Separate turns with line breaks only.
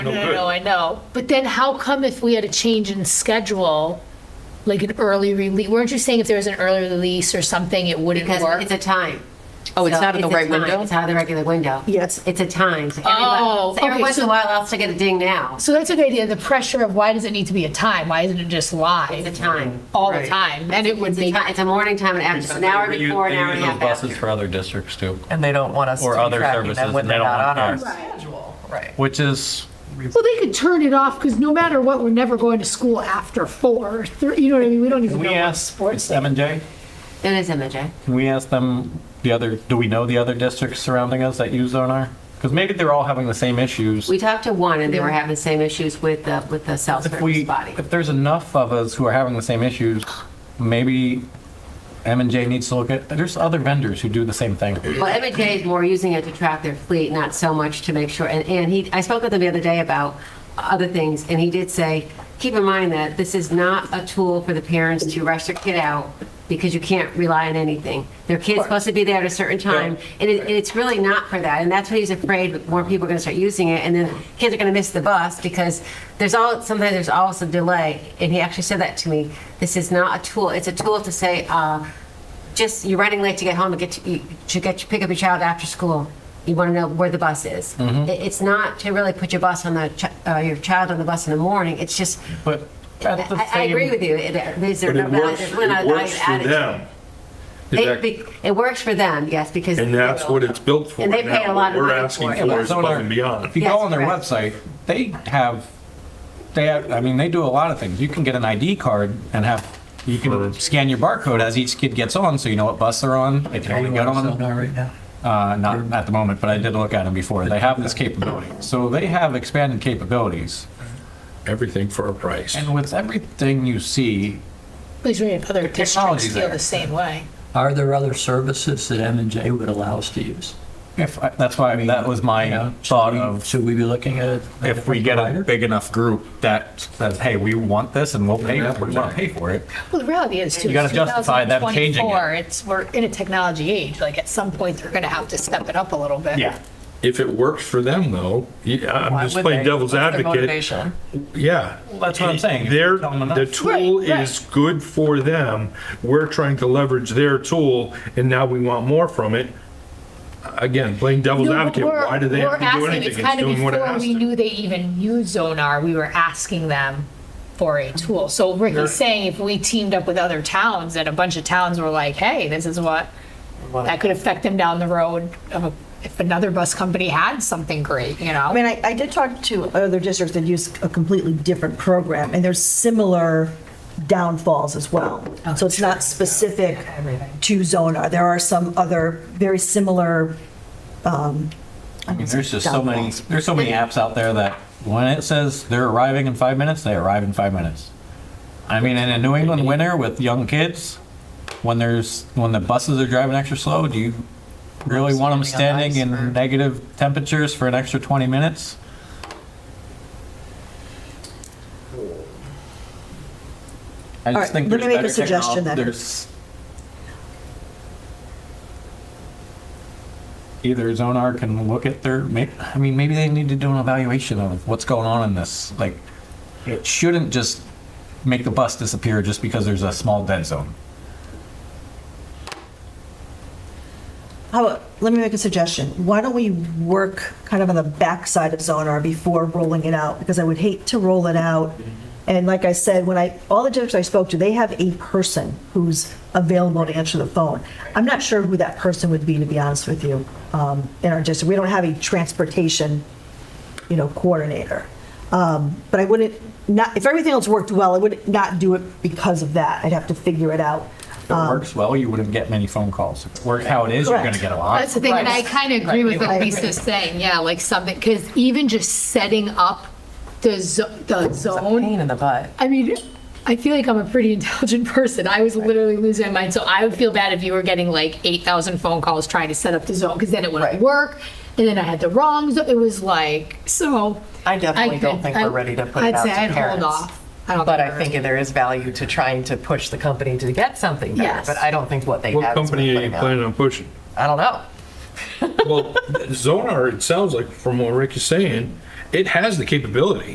No,
No,
good.
no, I know. But then how come if we had a change in schedule, like an early release, weren't you saying if there was an early release or something, it wouldn't
Because
work?
it's a time.
Oh, it's
So
not in the
a
right
time.
window?
It's out of the regular window.
Yes.
It's a time. So every,
Oh,
oh, so every
okay,
once in
so-
a while, I'll still get a ding now.
so that's a good idea. The pressure of why does it need to be a time? Why isn't it just
It's a
live
time.
all the
Right.
time? Then it would
It's a,
be.
ti- it's a morning time and after. It's an hour
They use-
before, an
they
hour
use
and a half
those Buses
after.
for other districts too,
And they don't want us to
Or
be
other
tracking
services,
them when
and they
they're
don't
not on our
want
schedule. Right.
which is,
Well, they could turn it off because no matter what, we're never going to school after four. or three- You know what I mean? We don't even
can
know
we
what
ask,
sports.
it's M and J,
It is eh? MJ.
can we ask them the other, do we know the other districts surrounding us that use Zonar? Because maybe they're all having the same issues.
We talked to one and they were having the same issues with the, with the cell
If
service
we,
body.
if there's enough of us who are having the same issues, maybe M and J needs to look at, there's other vendors who do the same thing.
Well, MJ is more using it to track their fleet, not so much to make sure. And, and he, I spoke with him the other day about other things, and he did say, keep in mind that this is not a tool for the parents to rush their kid out because you can't rely on anything. Their kid's supposed to be there at a certain time, and it, it's really not for that. And that's what he's afraid, that more people are gonna start using it, and then kids are gonna miss the bus because there's all, sometimes there's always a delay. And he actually said that to me. This is not a tool, it's a tool to say, uh, just you're running late to get home to get to, you, to get you pick up your child after school. You want to know where the bus is.
Mm-hmm.
It- it's not to really put your bus on the ch- uh, your child on the bus in the morning. It's just.
But at the
I, I agree
same,
with you. It, it, these are
But it
not-
works,
they're not
it works for
added.
them.
They,
That-
be, it works for them, yes, because
And that's what it's built for.
And they pay a
now.
lot of money
What We're asking
for it.
for is above
Zonar, if
and
you
beyond.
go
Yes,
on their
correct.
website, they have, they have, I mean, they do a lot of things. You can get an ID card and have, you can scan your barcode as each kid gets on, so you know what bus they're on. They can only get on
right now.
Uh, not at the moment, but I did look at them before. They have this capability. So they have expanded capabilities.
Everything for a price.
And with everything you see,
Please read other districts
technology's
feel
there.
the same way.
Are there other services that M and J would allow us to use?
if, I- that's why, that was
You
my
know, should
thought
we-
of,
Should we be looking at? a
if we
different
get a
provider?
big enough group that says, hey, we want this and we'll pay, we want to pay for it.
Well, the reality is too.
You gotta justify them changing it.
2024, It's, we're in a technology age. Like at some point, they're going to have to step it up a little bit.
Yeah.
If it works for them though, yeah, I'm
Why
just
would
playing
they?
devil's
What's their
advocate.
motivation?
Yeah.
that's what I'm saying. If
They're,
you tell them enough.
the tool
Right, right.
is good for them. We're trying to leverage their tool and now we want more from it. Again, playing devil's
No, but
advocate,
we're-
why do they
we're
have to do
asking-
anything?
It's kind of
doing what it
before
has
we
to.
knew they even used Zonar, we were asking them for a tool. So Ricky's saying if we teamed up with other towns and a bunch of towns were like, hey, this is what, that could affect them down the road of a- if another bus company had something great, you
I
know?
mean, I, I did talk to other districts that use a completely different program, and there's similar downfalls as well. So it's not specific to Zonar. There are some other very similar, um,
I mean, there's just so many,
downfalls.
there's so many apps out there that when it says they're arriving in five minutes, they arrive in five minutes. I mean, in a New England winter with young kids, when there's, when the buses are driving extra slow, do you really want them standing in negative temperatures for an extra 20 minutes? I
All right,
just think
let
there's
me make a
better
suggestion
technol-
then.
There's either Zonar can look at their, may- I mean, maybe they need to do an evaluation of what's going on in this. Like, it shouldn't just make the bus disappear just because there's a small dead zone.
how, let me make a suggestion. Why don't we work kind of on the backside of Zonar before rolling it out? Because I would hate to roll it out. And like I said, when I, all the districts I spoke to, they have a person who's available to answer the phone. I'm not sure who that person would be, to be honest with you, um, in our district. We don't have a transportation you know, coordinator. Um, But I wouldn't, not, if everything else worked well, I would not do it because of that. I'd have to figure it out.
If it works well, you wouldn't get many phone calls. If it works how it is, you're going to
Um, Correct.
get a lot.
That's the thing, and I kind of agree with what
Right.
Lisa's saying, yeah, like something, because even just setting up the zo- the zone
Pain in the butt.
I mean, I feel like I'm a pretty intelligent person. I was literally losing my mind. So I would feel bad if you were getting like 8,000 phone calls trying to set up the zone because then it wouldn't
Right.
work. And then I had the wrong zone. It was like, so.
I definitely don't
could-
think we're
I-
ready to put it
I'd
out
say
to
I'd
parents.
hold off. I don't
But
think
I
we're
think
ready.
there is value to trying to push the company to get something better,
Yes.
but I don't think what they have.
What
is worth
company are you
putting out.
planning on pushing?
I don't know.
Well, Zonar, it sounds like, from what Rick is saying, it has the capability.